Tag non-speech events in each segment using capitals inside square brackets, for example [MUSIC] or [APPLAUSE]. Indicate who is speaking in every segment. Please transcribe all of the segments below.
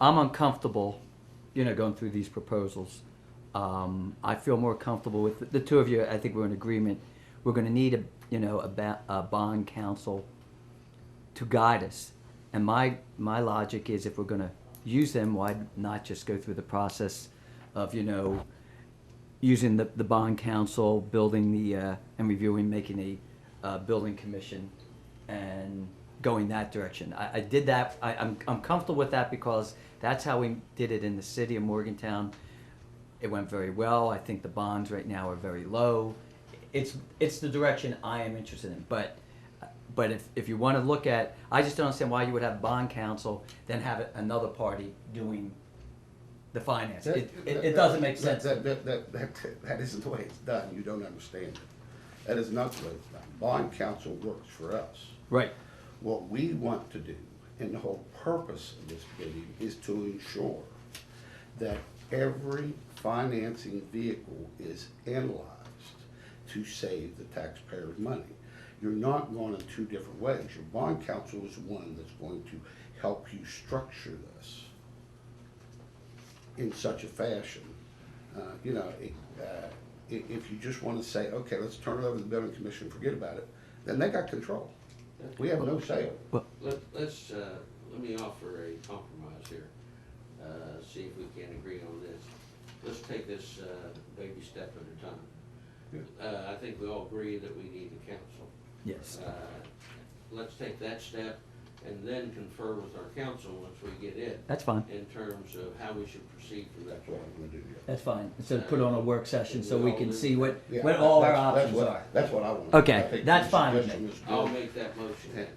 Speaker 1: I'm uncomfortable, you know, going through these proposals. Um, I feel more comfortable with, the two of you, I think we're in agreement. We're gonna need a, you know, a ba- a bond counsel to guide us. And my, my logic is if we're gonna use them, why not just go through the process of, you know, using the, the bond council, building the, uh, and reviewing, making a, uh, building commission and going that direction. I, I did that, I, I'm, I'm comfortable with that because that's how we did it in the city of Morgantown. It went very well. I think the bonds right now are very low. It's, it's the direction I am interested in, but, but if, if you wanna look at, I just don't understand why you would have bond council, then have another party doing the finance. It, it, it doesn't make sense.
Speaker 2: That- That, that, that, that, that isn't the way it's done, you don't understand it. That is not the way it's done. Bond counsel works for us.
Speaker 1: Right.
Speaker 2: What we want to do, and the whole purpose of this meeting, is to ensure that every financing vehicle is analyzed to save the taxpayer's money. You're not going in two different ways. Your bond counsel is one that's going to help you structure this in such a fashion. Uh, You know, it, uh, i- if you just want to say, okay, let's turn it over to the building commission, forget about it, then they got control. We have no say over it.
Speaker 3: Let, let's, uh, let me offer a compromise here, uh, see if we can agree on this. Let's take this, uh, baby step at a time. Uh, I think we all agree that we need the council.
Speaker 1: Yes.
Speaker 3: Uh, Let's take that step and then confer with our council once we get it
Speaker 1: That's fine.
Speaker 3: in terms of how we should proceed from that
Speaker 2: That's what
Speaker 3: point.
Speaker 2: I'm gonna do. yeah.
Speaker 1: That's fine. So put on a work session so we can see what,
Speaker 2: Yeah,
Speaker 1: what all our
Speaker 2: that's- that's
Speaker 1: options
Speaker 2: what-
Speaker 1: are.
Speaker 2: That's what I want.
Speaker 1: Okay, that's fine with me.
Speaker 3: I'll make that motion then.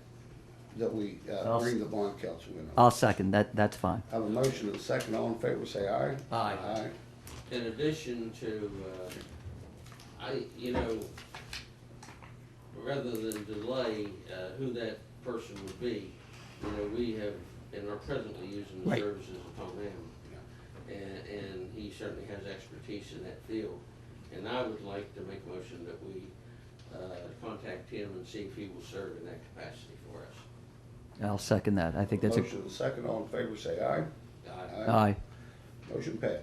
Speaker 2: That we uh,
Speaker 1: I'll s-
Speaker 2: bring the bond council in. I
Speaker 1: I'll second, that, that's fine.
Speaker 2: have a motion and a second, all in favor, say aye.
Speaker 1: Aye.
Speaker 2: Aye.
Speaker 3: in addition to, uh, I, you know, rather than delay, uh, who that person would be, you know, we have, and are presently using the
Speaker 1: Right.
Speaker 3: services of Tom Hamm. And, and he certainly has expertise in that field. And I would like to make a motion that we, uh, contact him and see if he will serve in that capacity for us.
Speaker 1: I'll second that. I think that's a,
Speaker 2: Motion and a second, all in favor, say aye.
Speaker 3: Uh,
Speaker 1: aye,
Speaker 2: Motion passed.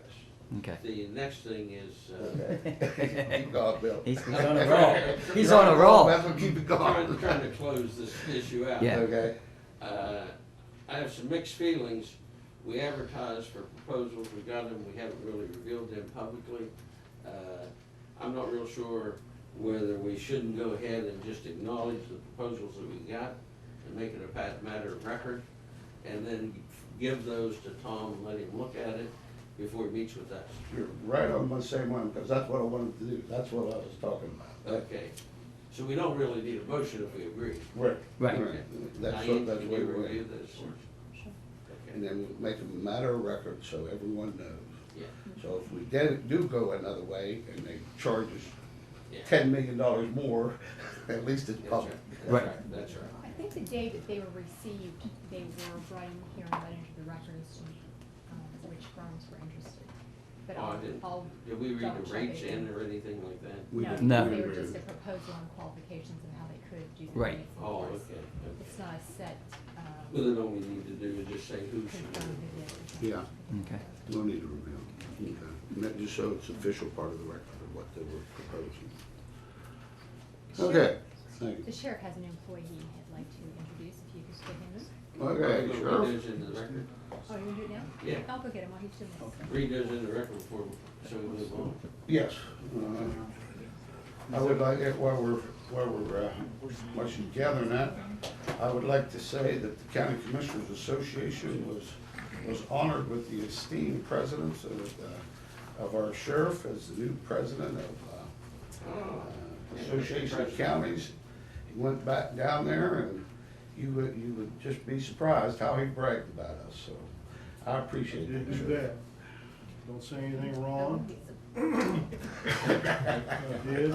Speaker 2: [LAUGHS]
Speaker 1: okay.
Speaker 3: The next thing is, uh,
Speaker 2: Okay. Keep going, Bill.
Speaker 1: [LAUGHS] He's he's on a roll. He's on a roll.
Speaker 2: That's what keep it
Speaker 3: trying,
Speaker 2: going.
Speaker 3: [LAUGHS] trying to close this issue out.
Speaker 1: Yeah.
Speaker 2: Okay,
Speaker 3: Uh, I have some mixed feelings. We advertised for proposals, we got them, we haven't really revealed them publicly. Uh, I'm not real sure whether we shouldn't go ahead and just acknowledge the proposals that we got and make it a pat- matter of record, and then give those to Tom and let him look at it before he meets with us.
Speaker 2: you're right on the same one, because that's what I wanted to do, that's what I was talking about.
Speaker 3: Okay, so we don't really need a motion if we agree.
Speaker 2: Right.
Speaker 1: Right.
Speaker 2: That's what,
Speaker 3: Diane,
Speaker 2: that's
Speaker 3: can
Speaker 2: what
Speaker 3: you
Speaker 2: we're.
Speaker 3: review this? Okay.
Speaker 2: And then we make a matter of record so everyone knows.
Speaker 3: Yeah.
Speaker 2: So if we did, do go another way and they charge us
Speaker 3: Yeah.
Speaker 2: ten million dollars more, [LAUGHS] at least it's
Speaker 3: That's
Speaker 2: public.
Speaker 3: That's right, that's right.
Speaker 4: I think the day that they were received, they were brought in here and let into the records, um, which firms were interested. But
Speaker 3: Oh, I
Speaker 4: I'll,
Speaker 3: didn't-
Speaker 4: I'll.
Speaker 3: Did we read
Speaker 4: double
Speaker 3: the
Speaker 4: check
Speaker 3: rates
Speaker 4: it.
Speaker 3: in or anything like that?
Speaker 2: We
Speaker 4: No,
Speaker 2: didn't-
Speaker 1: No.
Speaker 2: we
Speaker 4: they were
Speaker 2: didn't
Speaker 4: just a
Speaker 2: really-
Speaker 4: proposal on qualifications and how they could do the
Speaker 1: Right.
Speaker 4: rates and
Speaker 3: Oh,
Speaker 4: price.
Speaker 3: okay. okay.
Speaker 4: It's not a set,
Speaker 3: Well,
Speaker 4: um,
Speaker 3: then all we need to do is just say who should
Speaker 4: confirmed
Speaker 3: do
Speaker 4: it is.
Speaker 2: Yeah.
Speaker 1: Okay.
Speaker 2: No need to reveal. Okay. And that just so it's official part of the record of what they were proposing. Okay, thank
Speaker 4: The sheriff has an employee he'd like to introduce, if you could just get
Speaker 2: you.
Speaker 3: it.
Speaker 2: Okay,
Speaker 3: Read
Speaker 2: sure.
Speaker 3: those into the record.
Speaker 4: him. Oh, you want to do it now?
Speaker 3: Yeah.
Speaker 4: I'll go get him while he's doing this.
Speaker 3: Read those in the record before, we- so we move on.
Speaker 2: Yes. uh, I would like, it while we're, while we're, uh, while she's gathering that, I would like to say that the County Commissioners Association was, was honored with the esteemed presence of, uh, of our sheriff as the new president of, uh,
Speaker 3: Oh,
Speaker 2: uh, Association of Counties. He went back down there and you would, you would just be surprised how he bragged about us, so I appreciate
Speaker 5: Didn't
Speaker 2: it.
Speaker 5: do
Speaker 2: Sheriff.
Speaker 5: that. Don't say anything wrong.
Speaker 4: He's a
Speaker 5: [LAUGHS]
Speaker 2: [LAUGHS]
Speaker 5: I did.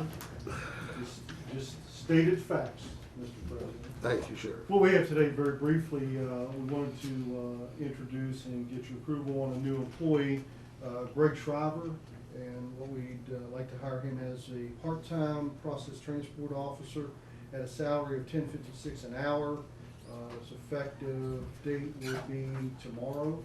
Speaker 5: Just- Just stated facts, Mr. President.
Speaker 2: Thank you, Sheriff.
Speaker 5: What we have today, very briefly, uh, we wanted to uh, introduce and get your approval on a new employee, uh, Greg Shriver. And what we'd uh, like to hire him as a part-time process transport officer at a salary of ten fifty-six an hour. Uh, His effective date will be tomorrow,